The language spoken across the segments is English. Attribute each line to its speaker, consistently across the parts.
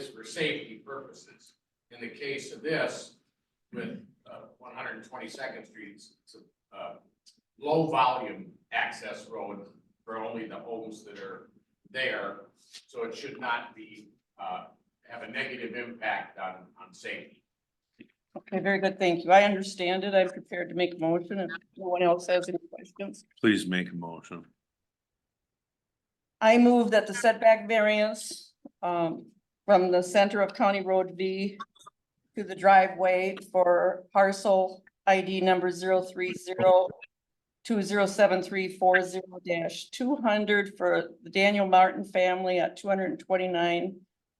Speaker 1: for safety purposes. In the case of this, with uh, one hundred and twenty-second Street, it's a uh, low-volume access road for only the homes that are there, so it should not be, uh, have a negative impact on, on safety.
Speaker 2: Okay, very good, thank you. I understand it. I'm prepared to make a motion if no one else has any questions.
Speaker 3: Please make a motion.
Speaker 2: I move that the setback variance um from the center of County Road V to the driveway for parcel ID number zero three zero two zero seven three four zero dash two hundred for the Daniel Martin family at two hundred and twenty-nine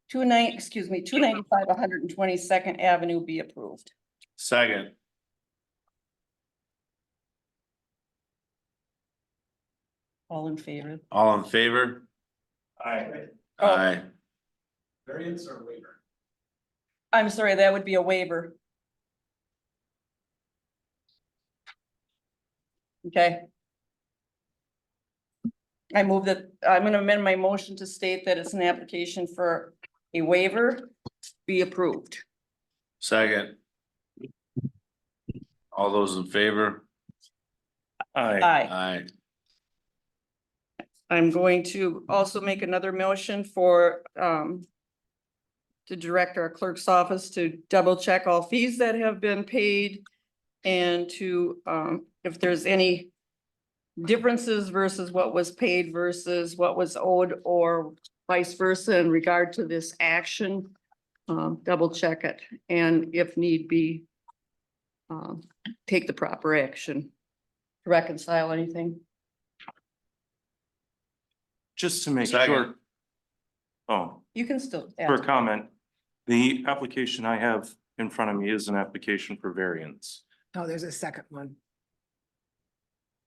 Speaker 2: two nine, excuse me, two ninety-five, one hundred and twenty-second Avenue be approved.
Speaker 3: Second.
Speaker 2: All in favor?
Speaker 3: All in favor?
Speaker 4: Aye.
Speaker 2: Oh.
Speaker 3: Aye.
Speaker 4: Variance or waiver?
Speaker 2: I'm sorry, that would be a waiver. Okay. I move that, I'm gonna amend my motion to state that it's an application for a waiver be approved.
Speaker 3: Second. All those in favor? Aye.
Speaker 2: Aye.
Speaker 3: Aye.
Speaker 2: I'm going to also make another motion for um. To direct our clerk's office to double check all fees that have been paid. And to um, if there's any. Differences versus what was paid versus what was owed or vice versa in regard to this action. Um, double check it and if need be. Um, take the proper action. to Reconcile anything.
Speaker 5: Just to make
Speaker 3: Second.
Speaker 5: sure. Oh,
Speaker 2: You can still.
Speaker 5: for
Speaker 2: ask.
Speaker 5: a comment, the application I have in front of me is an application for variance.
Speaker 6: Oh, there's a second one.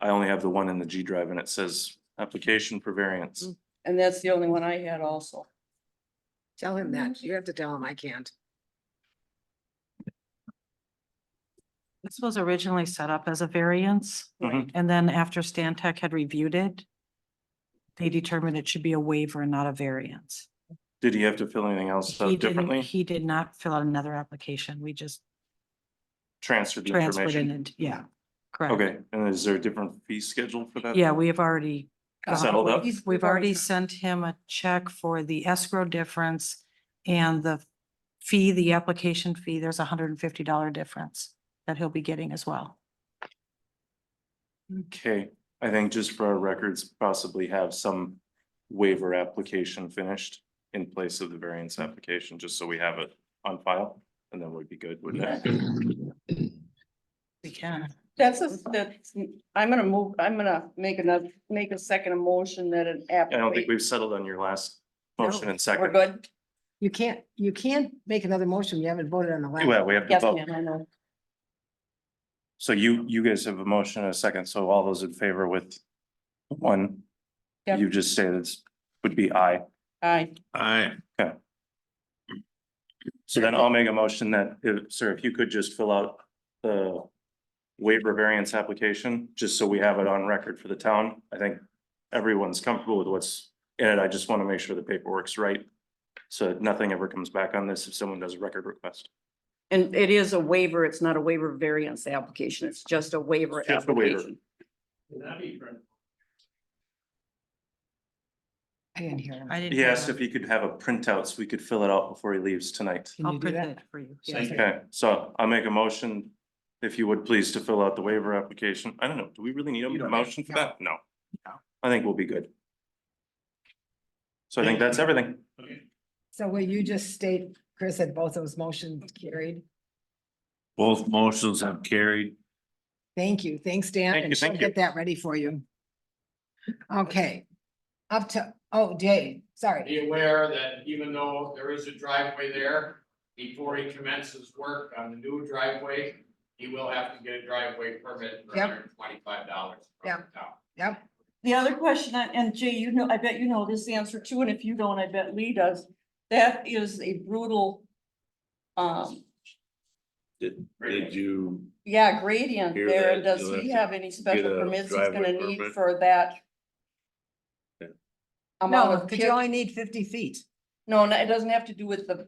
Speaker 5: I only have the one in the G drive and it says application for variance.
Speaker 6: Mm.
Speaker 2: And that's the only one I had also.
Speaker 6: Tell him that.
Speaker 7: Mm-hmm.
Speaker 6: You have to tell him I can't.
Speaker 7: This was originally set up as a variance,
Speaker 5: Mhm.
Speaker 7: and then after Stan Tech had reviewed it, they determined it should be a waiver and not a variance.
Speaker 5: Did he have to fill anything else
Speaker 7: He
Speaker 5: out
Speaker 7: didn't-
Speaker 5: differently?
Speaker 7: He did not fill out another application. We just
Speaker 5: Transferred the
Speaker 7: transferred it,
Speaker 5: information?
Speaker 7: in- yeah, correct.
Speaker 5: Okay, and is there a different fee schedule for that?
Speaker 7: Yeah, we have already,
Speaker 5: Is that all that?
Speaker 2: He's-
Speaker 7: we've already sent him a check for the escrow difference and the fee, the application fee, there's a hundred and fifty dollar difference that he'll be getting as well.
Speaker 5: Okay, I think just for our records, possibly have some waiver application finished in place of the variance application, just so we have it on file, and then we'd be good with that.
Speaker 7: We can.
Speaker 2: That's, a- that's, I'm gonna move, I'm gonna make another, make a second motion that an app.
Speaker 5: I don't think we've settled on your last motion and
Speaker 2: We're
Speaker 5: second.
Speaker 2: good?
Speaker 6: You can't, you can't make another motion. You haven't voted on the last.
Speaker 5: Well, we have to
Speaker 2: Yes,
Speaker 5: vote.
Speaker 2: ma'am, I know.
Speaker 5: So you, you guys have a motion and a second, so all those in favor with one,
Speaker 2: Yep.
Speaker 5: you just stated it's- would be aye.
Speaker 2: Aye,
Speaker 3: Aye.
Speaker 5: So then I'll make a motion that, if, sir, if you could just fill out the waiver variance application, just so we have it on record for the town. I think everyone's comfortable with what's in it. I just want to make sure the paperwork's right. So that nothing ever comes back on this if someone does a record request.
Speaker 2: and it is a waiver, it's not a waiver variance application, it's just a waiver
Speaker 5: Just a waiver.
Speaker 2: application.
Speaker 4: Would that be for
Speaker 6: I didn't hear him.
Speaker 7: I didn't.
Speaker 5: He asked
Speaker 7: have-
Speaker 5: if he could have a printout so we could fill it out before he leaves tonight.
Speaker 6: Can
Speaker 7: I'll
Speaker 6: you do
Speaker 7: print
Speaker 6: that?
Speaker 7: it for you.
Speaker 4: Second.
Speaker 5: Okay, so I'll make a motion, if you would please, to fill out the waiver application. I don't know, do we really need
Speaker 4: You
Speaker 5: a
Speaker 4: don't.
Speaker 5: motion for that? No.
Speaker 4: No.
Speaker 5: I think we'll be good. So I think that's everything.
Speaker 4: Okay.
Speaker 6: So will you just state, Chris, that both those motions carried?
Speaker 3: Both motions have carried.
Speaker 6: Thank you. Thanks, Dan.
Speaker 5: Thank
Speaker 6: and
Speaker 5: you, thank
Speaker 6: she'll
Speaker 5: you.
Speaker 6: Get that ready for you. Okay. Up to, oh, Dave, sorry.
Speaker 1: Be aware that even though there is a driveway there, before he commences work on the new driveway, he will have to get a driveway permit for
Speaker 6: Yep.
Speaker 1: hundred and twenty-five dollars from
Speaker 6: Yep.
Speaker 1: the town.
Speaker 6: Yep.
Speaker 2: The other question, I- and Jay, you know, I bet you know this answer too, and if you don't, I bet Lee does. That is a brutal, um,
Speaker 3: Did,
Speaker 1: did
Speaker 3: you?
Speaker 2: yeah, gradient
Speaker 3: Hear
Speaker 2: there.
Speaker 3: that,
Speaker 2: And does
Speaker 3: you'll
Speaker 2: he
Speaker 3: have
Speaker 2: have
Speaker 3: to
Speaker 2: any special
Speaker 3: a
Speaker 2: permits he's
Speaker 3: driveway
Speaker 2: gonna need
Speaker 3: permit.
Speaker 2: for that?
Speaker 3: Yeah.
Speaker 2: amount
Speaker 6: No,
Speaker 2: of
Speaker 6: because
Speaker 2: kick-
Speaker 6: you only need fifty feet.
Speaker 2: No, no, it doesn't have to do with the